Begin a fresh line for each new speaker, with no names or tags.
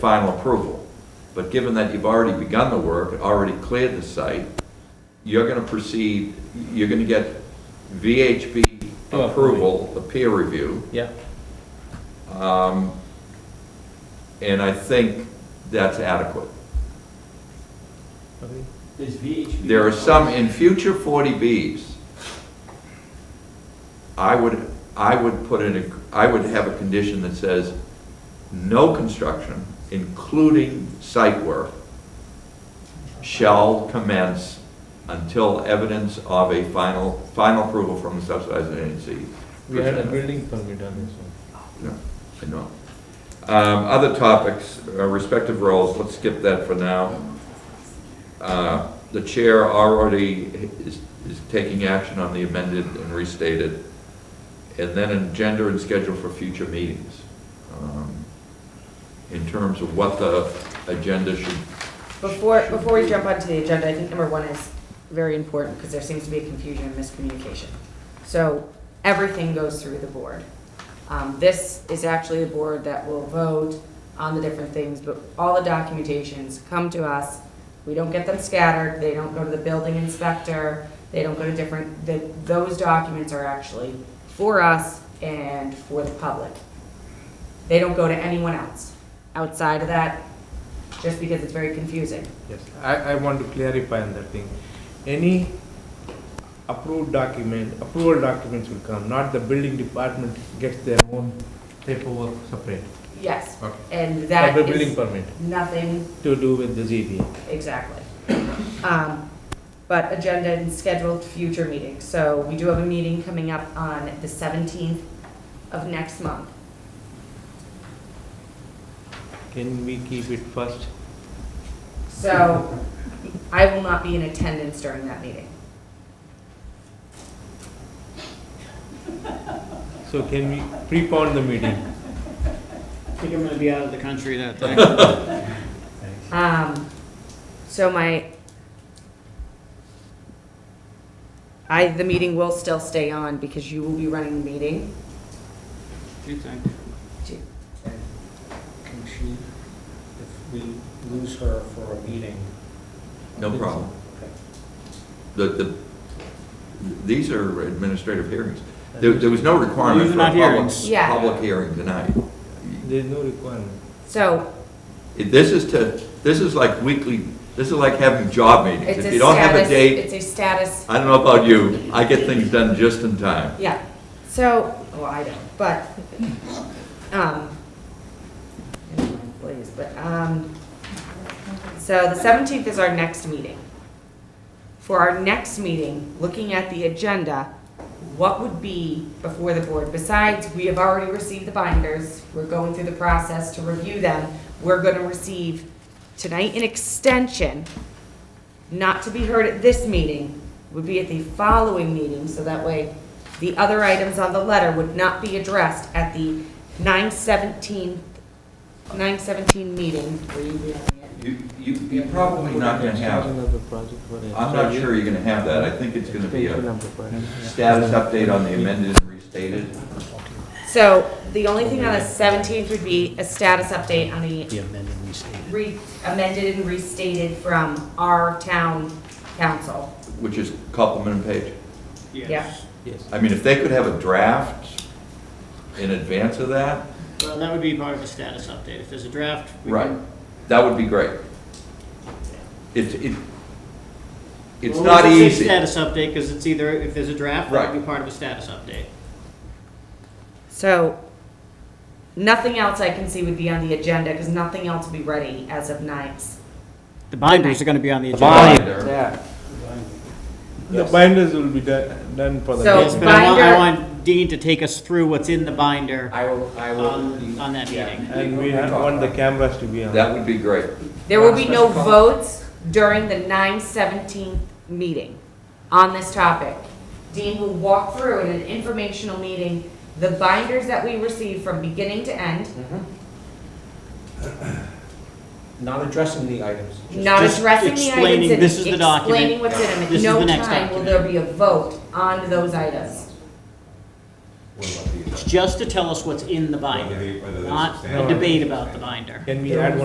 final approval. But given that you've already begun the work, already cleared the site, you're gonna proceed, you're gonna get VHB
Oh,
approval, the peer review,
Yeah,
and I think that's adequate.
okay.
Does VHB?
There are some, in future 40Bs, I would, I would put in, a- I would have a condition that says, no construction, including site work, shall commence until evidence of a final, final approval from the subsidizing agency.
We had a
presented."
building permit on this one.
No, I know. Um, Other topics, uh, respective roles, let's skip that for now. Uh, The chair already is, is taking action on the amended and restated, and then agenda and schedule for future meetings. um, In terms of what the agenda should.
Before, before we jump onto the agenda, I think number one is very important because there seems to be a confusion and miscommunication. So everything goes through the board. Um, This is actually the board that will vote on the different things, but all the documentations come to us. We don't get them scattered, they don't go to the building inspector, they don't go to different, the- those documents are actually for us and for the public. They don't go to anyone else outside of that, just because it's very confusing.
Yes, I, I want to clarify on that thing. Any approved document, approval documents will come, not the building department gets their own paperwork separate.
Yes,
Okay.
and
For
that
the building
is
permit,
nothing,
to do with the ZBA.
exactly. Um, But agenda and scheduled future meetings, so we do have a meeting coming up on the seventeenth of next month.
Can we keep it first?
So I will not be in attendance during that meeting.
So can we prepone the meeting?
I think I'm gonna be out of the country that day.
Um, so my, I, the meeting will still stay on because you will be running the meeting.
Do you think
And Can she, if we lose her for a meeting?
No problem.
Okay.
The, the, these are administrative hearings. There, there was no requirement
These
for
are
a
not
public,
hearings.
Yeah.
public hearing tonight.
There's no requirement.
So
It- This is to, this is like weekly, this is like having job meetings.
It's a
If you don't have a
status-
date,
It's a status,
I don't know about you, I get things done just in time.
yeah. So, well, I don't, but, um, please, but, um, so the seventeenth is our next meeting. For our next meeting, looking at the agenda, what would be before the board? Besides, we have already received the binders, we're going through the process to review them. We're gonna receive tonight an extension not to be heard at this meeting, would be at the following meeting, so that way the other items on the letter would not be addressed at the 9/17, 9/17 meeting. Will you be on the end?
You, you, you're probably not gonna have,
Another project for it.
I'm not sure you're gonna have that. I think it's gonna be a
Another project.
status update on the amended and restated.
So the only thing on the 17th would be a status update on the
amended and restated.
re- amended and restated from our town council.
Which is complement page.
Yes.
Yes.
I mean, if they could have a draft in advance of that,
Well, that would be part of a status update. If there's a draft, we
right,
can.
that would be great. It's, it, it's
Well,
not
we should say
easy.
Status update, because it's either, if there's a draft, that would
Right.
be part of a status update.
So nothing else I can see would be on the agenda, because nothing else will be ready as of 9th.
The binders are gonna be on the agenda.
Binder.
The binders will be done, done for the.
So-
Yes, but I want,
Binder-
I want Dean to take us through what's in the binder
I will, I will.
on, on that
Yeah.
meeting.
And we want the cameras to be on.
That would be great.
There will be no votes during the 9/17 meeting on this topic. Dean will walk through in an informational meeting the binders that we receive from beginning to end,
Mm-hmm. Not addressing the items. just-
not
Just
addressing the items
explaining,
in it,
this is the document,
explaining what's in them.
this
At
is
no
the next
time will there be a vote on those items.
It's just to tell us what's in the binder,
Whether they- whether there's
not a
substantial-
debate about the binder.
Can we add